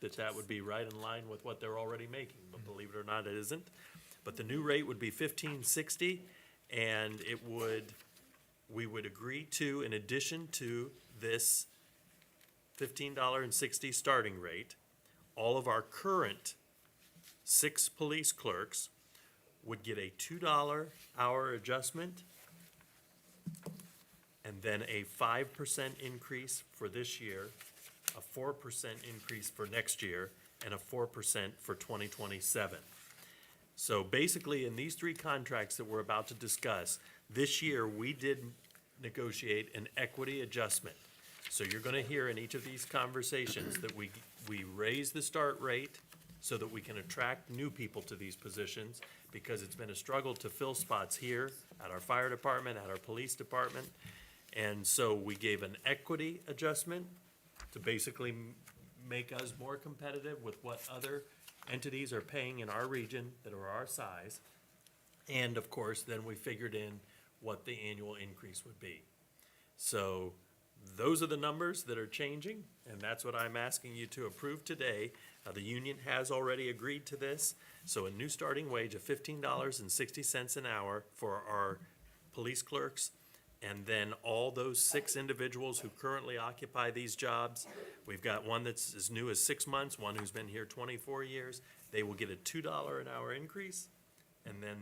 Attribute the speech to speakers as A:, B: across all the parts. A: that that would be right in line with what they're already making, but believe it or not, it isn't. But the new rate would be fifteen sixty, and it would, we would agree to, in addition to this fifteen dollar and sixty starting rate, all of our current six police clerks would get a two dollar hour adjustment and then a five percent increase for this year, a four percent increase for next year, and a four percent for twenty twenty-seven. So basically, in these three contracts that we're about to discuss, this year, we did negotiate an equity adjustment. So you're gonna hear in each of these conversations that we, we raise the start rate so that we can attract new people to these positions, because it's been a struggle to fill spots here, at our fire department, at our police department. And so we gave an equity adjustment to basically m- make us more competitive with what other entities are paying in our region that are our size. And of course, then we figured in what the annual increase would be. So those are the numbers that are changing, and that's what I'm asking you to approve today. Uh, the union has already agreed to this, so a new starting wage of fifteen dollars and sixty cents an hour for our police clerks. And then all those six individuals who currently occupy these jobs, we've got one that's as new as six months, one who's been here twenty-four years. They will get a two dollar an hour increase and then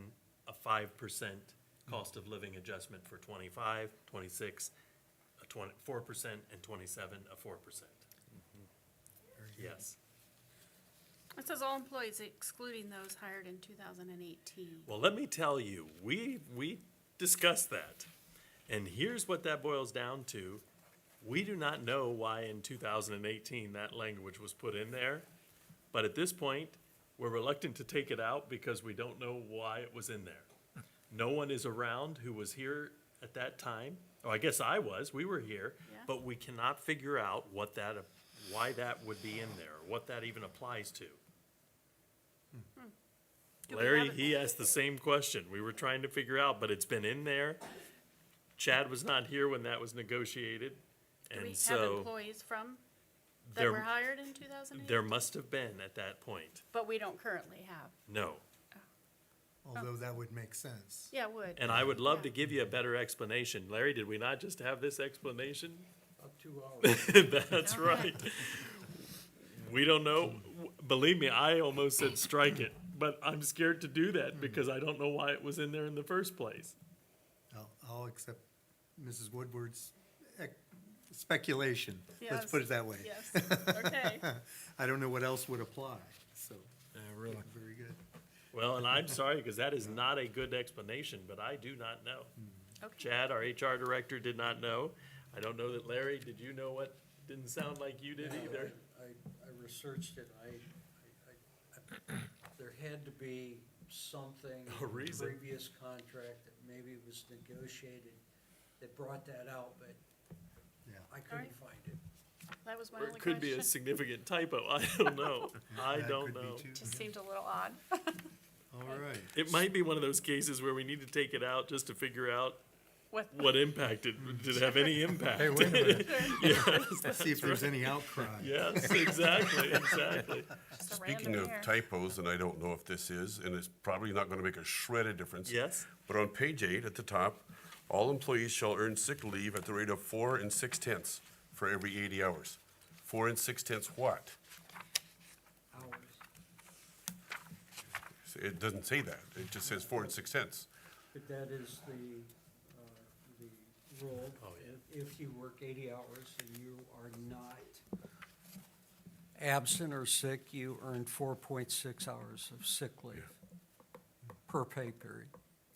A: a five percent cost of living adjustment for 25, 26, a twenty, four percent, and twenty-seven, a four percent. Yes.
B: It says all employees excluding those hired in two thousand and eighteen.
A: Well, let me tell you, we, we discussed that. And here's what that boils down to. We do not know why in two thousand and eighteen that language was put in there. But at this point, we're reluctant to take it out because we don't know why it was in there. No one is around who was here at that time. Oh, I guess I was, we were here.
B: Yeah.
A: But we cannot figure out what that, why that would be in there, what that even applies to.
B: Do we
A: Larry,
B: have it?
A: he asked the same question. We were trying to figure out, but it's been in there. Chad was not here when that was negotiated,
B: Do we
A: and
B: have
A: so
B: employees from, that were
A: there,
B: hired in two thousand and
A: there
B: eighteen?
A: must have been at that point.
B: But we don't currently have.
A: No.
C: Although that would make sense.
B: Oh. Yeah, would.
A: And I would love to
B: Yeah.
A: give you a better explanation. Larry, did we not just have this explanation?
D: About two hours.
A: That's right. We don't know. Believe me, I almost said strike it, but I'm scared to do that because I don't know why it was in there in the first place.
C: I'll, I'll accept Mrs. Woodward's ec- speculation. Let's put
B: Yes.
C: it that way.
B: Yes, okay.
C: I don't know what else would apply, so,
D: Yeah, really.
C: very good.
A: Well, and I'm sorry, because that is not a good explanation, but I do not know.
B: Okay.
A: Chad, our HR director, did not know. I don't know that Larry, did you know what? Didn't sound like you did either.
D: I, I researched it, I, I- I, there had to be something.
A: A reason.
D: in the Previous contract that maybe was negotiated that brought that out, but
C: Yeah.
D: I
B: Alright.
D: couldn't find it.
B: That was my
A: Or
B: only
A: it could be
B: question.
A: a significant typo. I don't know. I
C: That
A: don't
C: could be
A: know.
C: too.
B: Just seemed a little odd.
C: All right,
A: It might be one of those cases where we need to take it out just to figure out
B: What,
A: what impact it, did it have any impact?
C: Hey, wait a minute.
A: Yes,
C: let's see if there's any outcry.
A: yes, exactly, exactly.
B: just a
E: Speaking
B: random
E: of
B: hair.
E: typos, and I don't know if this is, and it's probably not gonna make a shred of difference.
A: Yes.
E: But on page eight at the top, all employees shall earn sick leave at the rate of four and six tenths for every eighty hours. Four and six tenths what?
D: Hours.
E: It doesn't say that. It just says four and six tenths.
D: But that is the, uh, the rule.
A: Oh.
D: If- If you work eighty hours and you are not absent or sick, you earn four point six hours of sick leave per pay period.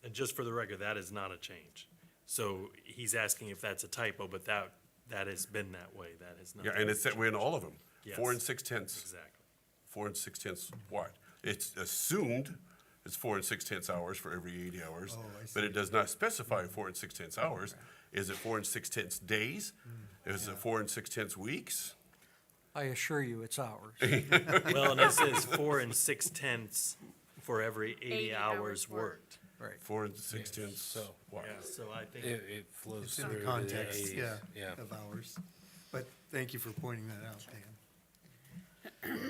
A: And just for the record, that is not a change. So he's asking if that's a typo, but that, that has been that way. That has not.
E: Yeah, and it's that way in all of them. Four and
A: Yes.
E: six tenths,
A: Exactly.
E: four and six tenths what? It's assumed it's four and six tenths hours for every eighty hours.
C: Oh, I
E: But
C: see.
E: it does not specify four and six tenths hours. Is it four and six tenths days?
C: Mm.
E: Is it four and six tenths weeks?
D: I assure you, it's hours.
A: Well, and it says four and six tenths for every eighty
B: 80
A: hours
B: hours worked.
A: worked.
D: Right.
E: Four and six tenths
F: so-
E: what?
A: Yeah, so I think,
F: It, it flows
C: It's
F: through.
C: in the
F: the
C: context,
F: 80s,
C: yeah,
F: Yeah.
C: of ours. But thank you for pointing that out, Dan.